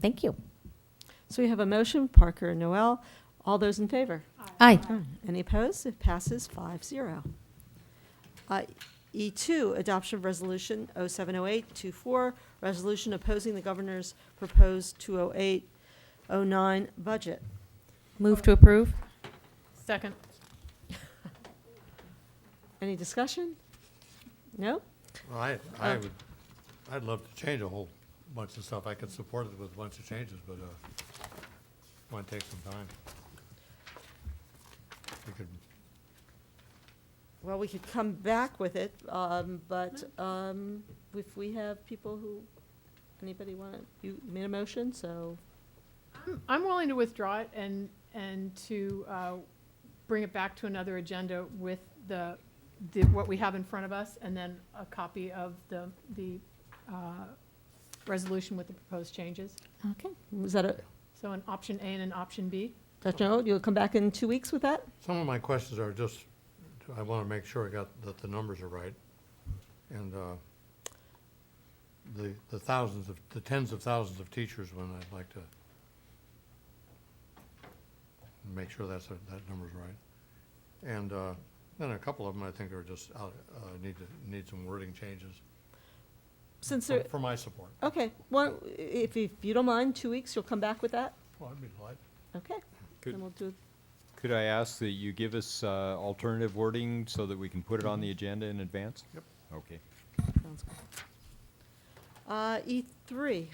Thank you. So we have a motion, Parker and Noel. All those in favor? Aye. Any opposed? It passes 5-0. Uh, E2, adoption of resolution 070824, resolution opposing the governor's proposed 20809 budget. Move to approve? Second. Any discussion? No? Well, I, I Oh. would, I'd love to change a whole bunch of stuff. I could support it with a bunch of changes, but, uh, might take some time. We could, Well, we could come back with it, um, but um, if we have people who, anybody want, to you made a motion, so, I'm willing to withdraw it and, and to uh, bring it back to another agenda with the, the- what we have in front of us, and then a copy of the, the uh, resolution with the proposed changes. Okay. is that a, So an option A and an option B. Dr. Noel, you'll come back in two weeks with that? some of my questions are just, I wanna make sure I got, that the numbers are right. And, uh, the, the thousands of, the tens of thousands of teachers when I'd like to make sure that's, a- that number's right. And, uh, then a couple of them I think are just out, uh, need to, need some wording changes. Since For there, for my support. okay, well, if, if you don't mind, two weeks, you'll come back with that? Well, I'd be delighted. Okay, Could- then we'll do, Could I ask that you give us uh, alternative wording so that we can put it on the agenda in advance? Yep. Okay. sounds good. Uh, E three,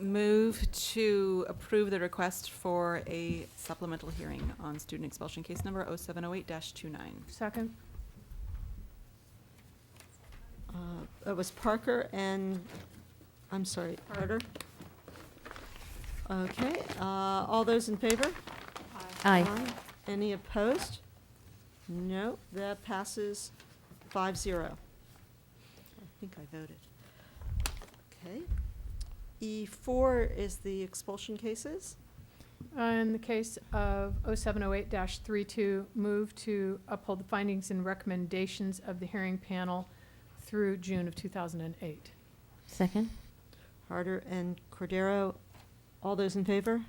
Move to approve the request for a supplemental hearing on student expulsion case number 0708-29. Second. uh, it was Parker and, I'm sorry, Carter? Okay, uh, all those in favor? Aye. Any opposed? No, that passes five zero. I think I voted. Okay. E four is the expulsion cases. Uh, In the case of 0708-32, move to uphold the findings and recommendations of the hearing panel through June of 2008. Second? Harder and Cordero, all those in favor?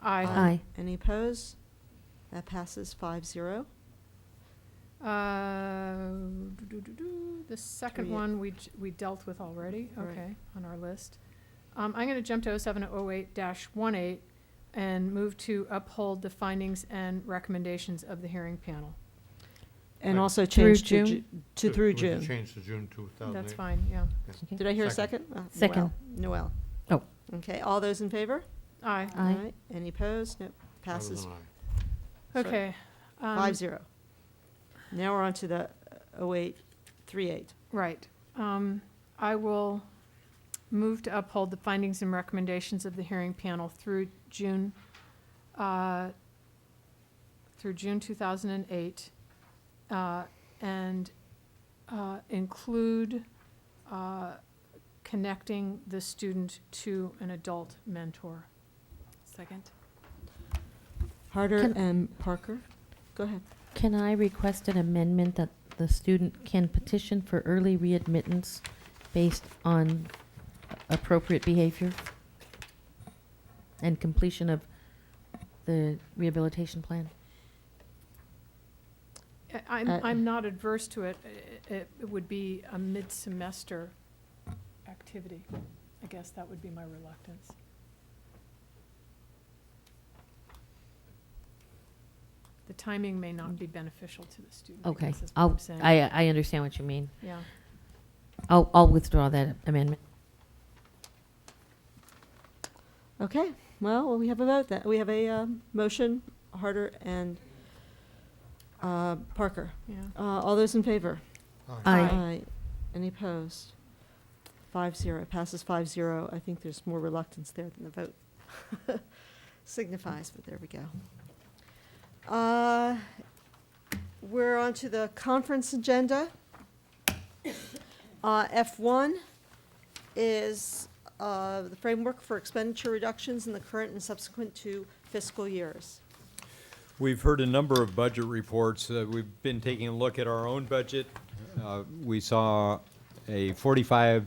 Aye. Aye. Any opposed? That passes five zero. Uh, doo-doo-doo-doo. The second Three. one, we, j- we dealt with already, Right. okay, on our list. Um, I'm gonna jump to 0708 18 and move to uphold the findings and recommendations of the hearing panel. And Right. also Through change to, Ju- to through Would you June. Change to June 2008. That's fine, yeah. Did I hear a second? Second. Uh, Second. Noel. Oh. Okay, all those in favor? Aye, Aye. All right. Any opposed? No, I was passes an aye. Sorry. okay. um, Five zero. Now we're on to the oh eight, three eight. Right. Um, I will move to uphold the findings and recommendations of the hearing panel through June, uh, through June 2008, uh, and uh, include uh, connecting the student to an adult mentor. Second? Harder Can- and Parker, go ahead. Can I request an amendment that the student can petition for early readmittance based on appropriate behavior and completion of the rehabilitation plan? I- I'm, Uh, I'm not adverse to it. I- i- It would be a mid-semester activity. I guess that would be my reluctance. The timing may not be beneficial to the student. I Okay, guess is what I'll, I'm saying. I, uh, I understand what you mean. Yeah. I'll, I'll withdraw that amendment. Okay, well, we have a vote then. We have a um, motion, Harder and uh, Parker. Yeah. Uh, All those in favor? Uh, Aye. Aye. Any opposed? Five zero, It passes five zero. I think there's more reluctance there than the vote signifies, but there we go. Uh, We're on to the conference agenda. Uh, F1 is uh, the framework for expenditure reductions in the current and subsequent to fiscal years. We've heard a number of budget reports. Uh, We've been taking a look at our own budget. Uh, We saw a 45